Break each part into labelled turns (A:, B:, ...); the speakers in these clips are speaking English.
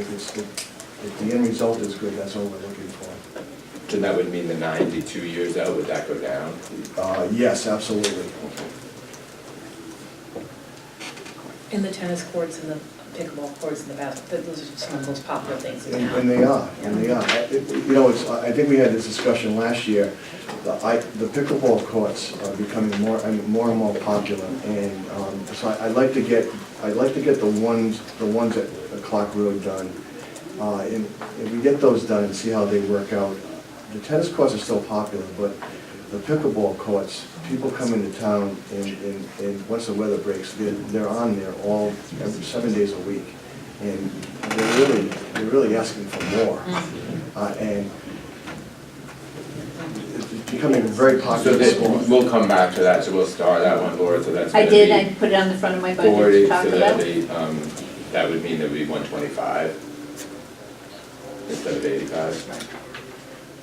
A: it's, it- if the end result is good, that's all we're looking for.
B: Then that would mean the ninety-two years out, would that go down?
A: Uh, yes, absolutely.
C: And the tennis courts and the pickleball courts and the basketball, those are some of the most popular things in
A: And
C: town.
A: and they are, and they are. I- it- You know, it's, I I think we had this discussion last year. The I- the pickleball courts are becoming more, and more and more popular. And um, so I- I'd like to get, I'd like to get the ones, the ones at Clock Road done. Uh, And if we get those done and see how they work out. The tennis courts are still popular, but the pickleball courts, people come into town and, and, and once the weather breaks, they're, they're on there all, every, seven days a week. And they're really, they're really asking for more. Uh, and it's becoming a very
B: So
A: popular
B: that,
A: sport.
B: we'll come back to that, so we'll star that one, Laura, so that's
D: I
B: gonna be.
D: did, I put it on the front of my budget
B: Forty,
D: to
B: so
D: talk
B: that'd
D: about.
B: be, um, that would mean there'd be one twenty-five instead of eighty-five.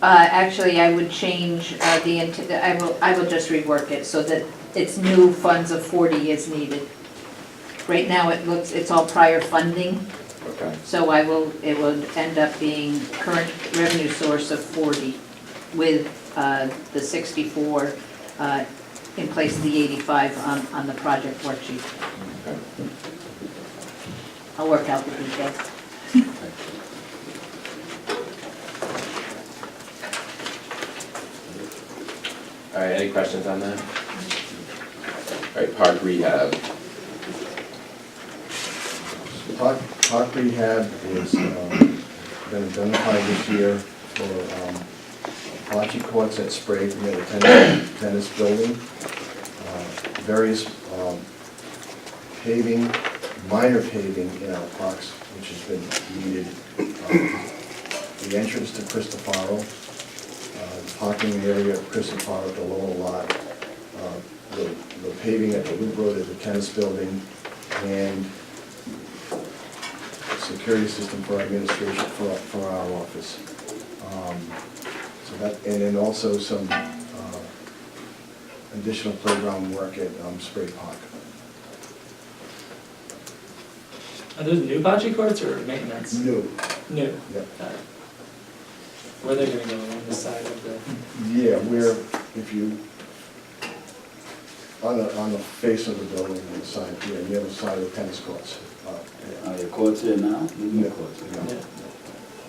D: Uh, actually, I would change uh, the, int- I will, I will just rework it so that it's new funds of forty is needed. Right now, it looks, it's all prior funding,
B: Okay,
D: so I will, it will end up being current revenue source of forty with uh, the sixty-four uh, in place of the eighty-five on, on the project worksheet.
B: okay.
D: I'll work out the details.
B: All right, any questions on that? All right, park rehab,
A: Park, park rehab is, um, been identified this year for, um, bocce courts at Sprague, near the tennis, tennis building. Uh, Various, um, paving, minor paving in our parks, which has been needed. Um, The entrance to Cristofaro, uh, parking area of Cristofaro at the lower lot, uh, the the paving at the loop road at the tennis building, and security system for our administration, for, for our office. Um, So that, and then also some uh, additional playground work at um, Spray Park.
E: Are those new bocce courts or maintenance?
A: New,
E: New.
A: yep.
E: Got it. Where they're gonna go along the side of the,
A: Yeah, where if you, on the, on the face of the building, on the side, yeah, the other side of the tennis courts. uh,
F: Are your courts there now? The new
A: Yeah.
F: courts,
A: yeah.
E: Yeah.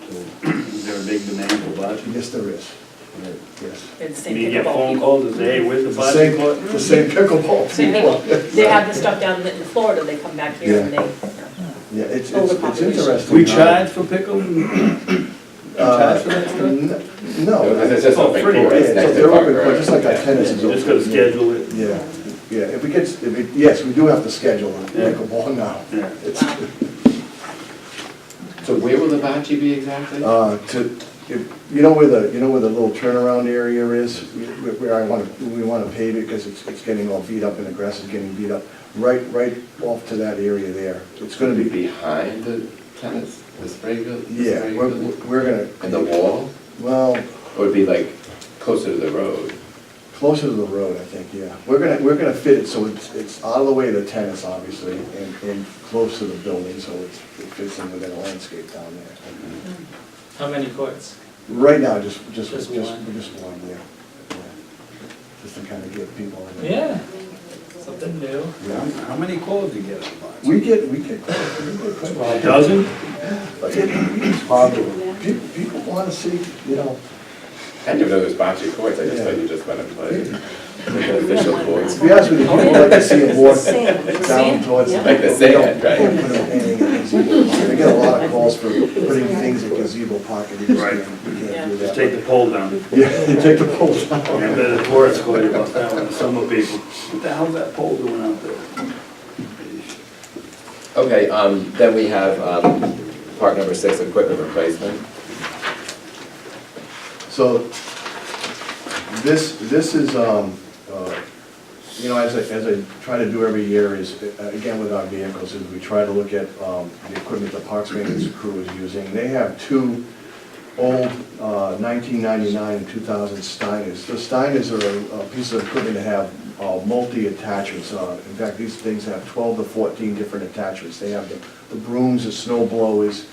F: So, Is there a big demand for bocce?
A: Yes, there is,
F: Right.
A: yes.
C: It's the same
F: I mean, you get
C: pickleball
F: phone
C: people.
F: calls, and say, hey, where's the
A: The
F: bocce
A: same,
F: court?
A: the same pickleball.
C: Same people, they have this stuff down in Florida, they come back here and
A: Yeah.
C: they, you
A: Yeah, it's, it's it's
C: Overpopulation.
A: interesting.
F: We
A: how-
F: charge for pickle? We
A: Uh,
F: charge for that stuff?
A: n- No.
B: Because it's just
F: Oh,
B: open
F: pretty,
B: court,
A: Yeah,
B: it's
A: so
B: next to
A: they're
B: park,
A: open,
B: right?
A: court, just like our
B: Yeah.
A: tennis is open.
F: Just gotta schedule it.
A: Yeah, yeah, if we get, if it, yes, we do have to schedule it,
F: Yeah.
A: make a ball now.
F: Yeah.
A: It's,
C: know,
B: So where will the bocce be exactly?
A: uh, to, if, you know where the, you know where the little turnaround area is? Where where I wanna, we wanna pave it, because it's, it's getting all beat up and the grass is getting beat up. Right, right off to that area there. It's gonna be,
B: Behind the tennis, the spray gu- the
A: yeah,
B: spray
A: we're,
B: gu-
A: we're gonna.
B: And the wall,
A: Well,
B: or it'd be like closer to the road?
A: Closer to the road, I think, yeah. We're gonna, we're gonna fit it so it's, it's out of the way of the tennis, obviously, and, and close to the building, so it's, it fits in within a landscape down there.
E: how many courts?
A: Right now, just, just, just,
E: Just
A: just
E: one.
A: one, yeah. yeah. Just to kind of get people in. there.
E: Yeah, something new.
A: Yeah.
F: How many calls do you get on bocce?
A: We get, we get, we get quite-
F: A dozen?
A: but it-
F: Probably.
A: people, people wanna see, you know,
B: I didn't know there was bocce courts, I just
A: Yeah.
B: thought you just went and played. Like the Official courts,
A: to be honest with you, people like to see a walk down
C: Sand,
A: towards.
C: yeah.
B: like the sand,
A: Put
B: right?
A: them in a gazebo pocket. I get a lot of calls for putting things in gazebo pocket, you just can't, you can't do
F: Just take
A: that.
F: the pole down.
A: Yeah, you take the poles out.
F: And then the tourists call you about that one, some of people. What the hell's that pole doing out there?
B: Okay, um, then we have, um, part number six, equipment replacement.
A: So, this, this is, um, uh, you know, as I, as I try to do every year is, uh, again, with our vehicles, is we try to look at, um, the equipment the parks maintenance crew is using. They have two old, uh, nineteen ninety-nine and two thousand Steiners. The Steiners are uh, pieces of equipment that have, uh, multi-attachments on it. In fact, these things have twelve to fourteen different attachments. They have the the brooms, the snow blowers,